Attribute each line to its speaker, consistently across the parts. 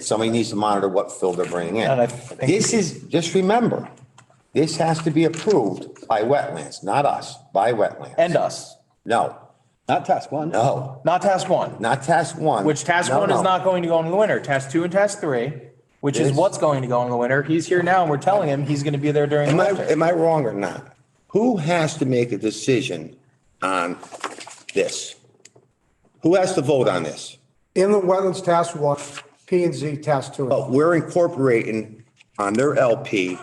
Speaker 1: Somebody needs to monitor what fill they're bringing
Speaker 2: And I
Speaker 1: in.
Speaker 2: think-
Speaker 1: This is, just remember, this has to be approved by wetlands, not us, by wetlands.
Speaker 2: And us,
Speaker 1: No,
Speaker 3: Not task one.
Speaker 1: no,
Speaker 2: not task one,
Speaker 1: not task one.
Speaker 2: which task
Speaker 1: No,
Speaker 2: one is
Speaker 1: no.
Speaker 2: not going to go into the winter. Task two and task three, which is
Speaker 1: Yes.
Speaker 2: what's going to go in the winter. He's here now and we're telling him he's going to be there during the
Speaker 1: Am I,
Speaker 2: winter.
Speaker 1: am I wrong or not? Who has to make a decision on this? Who has to vote on this?
Speaker 4: Inland Wetlands Task One, P and Z Task Two.
Speaker 1: But we're incorporating on their LP,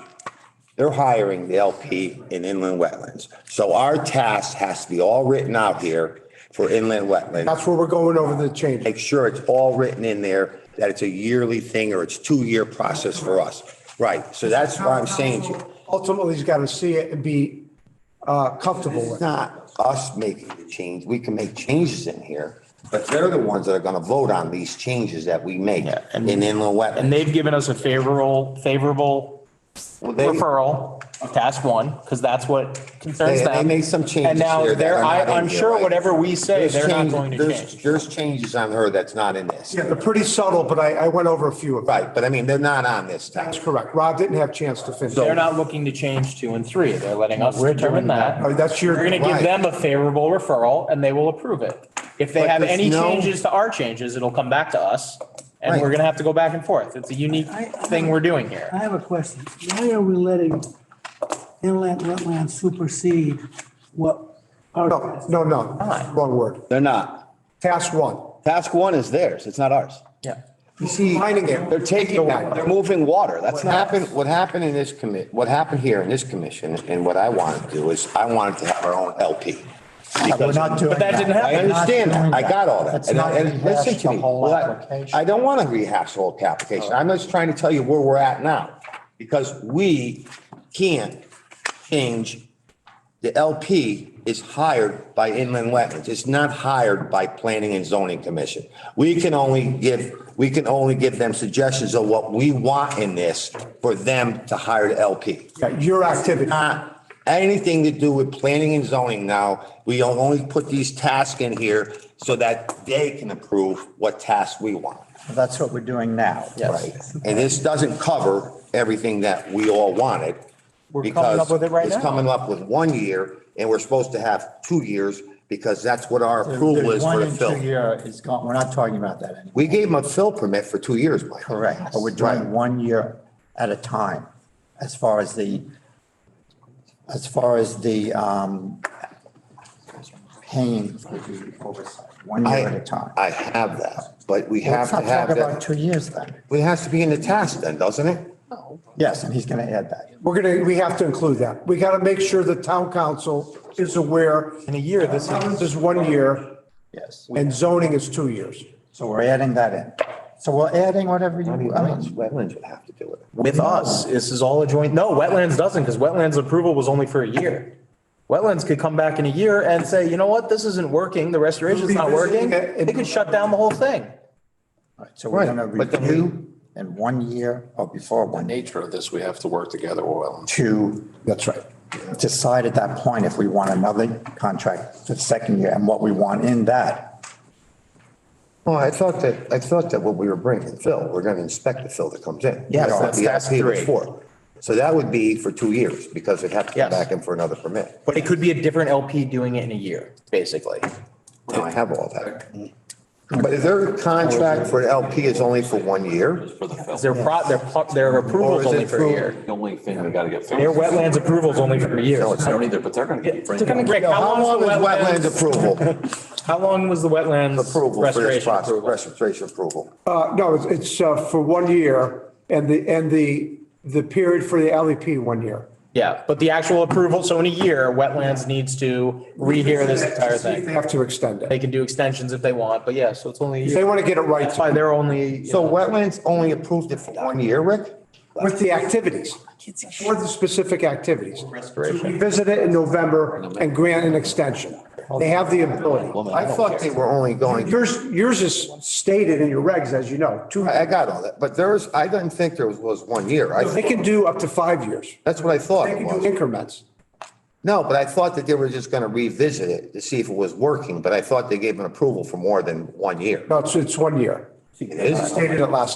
Speaker 1: they're hiring the LP in inland wetlands. So our task has to be all written out here for inland wetlands.
Speaker 4: That's where we're going over the changes.
Speaker 1: Make sure it's all written in there, that it's a yearly thing or it's two-year process for us. Right, so that's what I'm saying to you.
Speaker 4: Ultimately, he's got to see it and be uh, comfortable
Speaker 1: It's
Speaker 4: with. it.
Speaker 1: not us making the change. We can make changes in here, but they're the ones that are gonna vote on these changes that we make
Speaker 2: Yeah,
Speaker 1: in
Speaker 2: and-
Speaker 1: inland
Speaker 2: And
Speaker 1: wetlands.
Speaker 2: they've given us a favorable, favorable
Speaker 1: Well, they-
Speaker 2: referral of task one, because that's what concerns
Speaker 1: They,
Speaker 2: them.
Speaker 1: they made some changes.
Speaker 2: And now
Speaker 1: here that
Speaker 2: they're,
Speaker 1: are not
Speaker 2: I,
Speaker 1: in
Speaker 2: I'm
Speaker 1: here,
Speaker 2: sure
Speaker 1: right?
Speaker 2: whatever we say,
Speaker 1: There's
Speaker 2: they're not
Speaker 1: change-
Speaker 2: going to
Speaker 1: there's-
Speaker 2: change.
Speaker 1: There's changes on her that's not in this.
Speaker 4: Yeah, they're pretty subtle, but I, I went over a few of them.
Speaker 1: Right, but I mean, they're not on this
Speaker 4: That's
Speaker 1: task.
Speaker 4: correct. Rob didn't have a chance to finish.
Speaker 2: They're not looking to change two and three. They're letting us
Speaker 3: We're
Speaker 2: determine
Speaker 3: doing that.
Speaker 4: Uh,
Speaker 1: Oh,
Speaker 2: that.
Speaker 4: That's your.
Speaker 2: We're going to give
Speaker 1: Right.
Speaker 2: them a favorable referral and they will approve it. If they
Speaker 1: But
Speaker 2: have
Speaker 1: there's
Speaker 2: any
Speaker 1: no-
Speaker 2: changes to our changes, it'll come back to us and
Speaker 1: Right.
Speaker 2: we're going to have to go back and forth. It's a unique
Speaker 5: I- I-
Speaker 2: thing we're doing here.
Speaker 5: I have a question. Why are we letting inland wetlands supersede what our?
Speaker 4: No, no, no, wrong word.
Speaker 3: They're not.
Speaker 4: Task One.
Speaker 3: Task one is theirs. It's not ours.
Speaker 2: Yeah.
Speaker 4: You see. Finding it.
Speaker 3: They're taking, they're moving water. That's
Speaker 1: What
Speaker 3: not.
Speaker 1: happened, what happened in this commit, what happened here in this commission and what I wanted to do is I wanted to have our own LP.
Speaker 6: We're not doing
Speaker 2: But that didn't
Speaker 1: I
Speaker 2: happen.
Speaker 1: understand that. I got all that.
Speaker 6: It's
Speaker 1: And,
Speaker 6: not
Speaker 1: I- and
Speaker 6: rehash
Speaker 1: listen to
Speaker 6: the
Speaker 1: me.
Speaker 6: whole
Speaker 1: Well, I-
Speaker 6: application.
Speaker 1: I don't want to rehash the whole application. I'm just trying to tell you where we're at now. Because we can't change, the LP is hired by inland wetlands. It's not hired by planning and zoning commission. We can only give, we can only give them suggestions of what we want in this for them to hire the LP
Speaker 4: Yeah, Your activity.
Speaker 1: not anything to do with planning and zoning now. We only put these tasks in here so that they can approve what tasks we want.
Speaker 6: That's what we're doing now.
Speaker 1: Right? And this doesn't cover everything that we all wanted.
Speaker 2: We're coming up with it right
Speaker 1: because It's
Speaker 2: now.
Speaker 1: coming up with one year and we're supposed to have two years because that's what our approval is for
Speaker 6: One
Speaker 1: the
Speaker 6: and two
Speaker 1: fill.
Speaker 6: year is gone. We're not talking about that anymore.
Speaker 1: We gave them a fill permit for two years, Mike.
Speaker 6: Correct. But we're
Speaker 1: Right.
Speaker 6: doing one year at a time as far as the, as far as the, um, paying for the oversight, one year at a
Speaker 1: I,
Speaker 6: time.
Speaker 1: I have that, but we have
Speaker 6: Let's
Speaker 1: to
Speaker 6: not talk
Speaker 1: have
Speaker 6: about
Speaker 1: that.
Speaker 6: two years then.
Speaker 1: It has to be in the task then, doesn't it?
Speaker 6: Yes, and he's going to add that.
Speaker 4: We're going to, we have to include that. We got to make sure the town council is aware.
Speaker 2: In a year, this
Speaker 4: This is one year
Speaker 6: Yes.
Speaker 4: and zoning is two years.
Speaker 6: So we're adding that in. So we're adding whatever you, I mean,
Speaker 1: Wetlands would have to do it.
Speaker 2: with us. This is all a joint, no, wetlands doesn't, because wetlands approval was only for a year. Wetlands could come back in a year and say, you know what, this isn't working, the restoration's not working. They could shut down the whole thing.
Speaker 6: so we're going to
Speaker 1: But the
Speaker 6: review in one year or before one year
Speaker 7: nature of this, we have to work together, Well,
Speaker 6: to. That's right. Decide at that point if we want another contract for the second year and what we want in that.
Speaker 1: Well, I thought that, I thought that what we were bringing, Phil, we're gonna inspect the Phil that comes in.
Speaker 6: Yes,
Speaker 1: That's not
Speaker 6: that's
Speaker 1: the
Speaker 2: task
Speaker 1: IP
Speaker 2: three.
Speaker 1: before. So that would be for two years because it'd have to come
Speaker 2: Yes.
Speaker 1: back in for another permit.
Speaker 2: But it could be a different LP doing it in a year, basically.
Speaker 1: And I have all that. But if their contract for LP is only for one year,
Speaker 8: for the film.
Speaker 2: Because their pro, their, pro- their approval's
Speaker 1: Or is it
Speaker 2: only for a
Speaker 1: through-
Speaker 2: year.
Speaker 8: The only thing we gotta get
Speaker 2: Their
Speaker 8: fixed.
Speaker 2: wetlands approval's only for a year.
Speaker 8: I don't either, but they're gonna keep bringing. it.
Speaker 2: Rick,
Speaker 1: how long is wetlands approval?
Speaker 2: How long was the wetlands
Speaker 1: Approval for this
Speaker 2: restoration
Speaker 1: process,
Speaker 2: approval?
Speaker 1: restoration approval.
Speaker 4: Uh, no, it's, it's uh, for one year and the, and the, the period for the LEP one year.
Speaker 2: Yeah, but the actual approval, so in a year, wetlands needs to rehear this entire
Speaker 4: See if They
Speaker 2: thing.
Speaker 4: have to extend
Speaker 2: They
Speaker 4: it.
Speaker 2: can do extensions if they want, but yeah, so it's only. a year.
Speaker 4: They want to get it right
Speaker 2: That's why they're only. you
Speaker 1: So
Speaker 2: know-
Speaker 1: wetlands only approved it for one year, Rick?
Speaker 4: with the activities, for the specific activities.
Speaker 2: Restoration.
Speaker 4: Visit it in November and grant an extension. They have the ability.
Speaker 1: I thought they were only going.
Speaker 4: Yours, yours is stated in your regs, as you know, two,
Speaker 1: I I got all that, but there was, I didn't think there was, was one year.
Speaker 4: they
Speaker 1: I,
Speaker 4: can do up to five years.
Speaker 1: that's what I thought
Speaker 4: They
Speaker 1: it
Speaker 4: can
Speaker 1: was.
Speaker 4: do increments.
Speaker 1: No, but I thought that they were just gonna revisit it to see if it was working, but I thought they gave an approval for more than one year.
Speaker 4: No, it's, it's one year.
Speaker 1: It is?
Speaker 4: Stated it last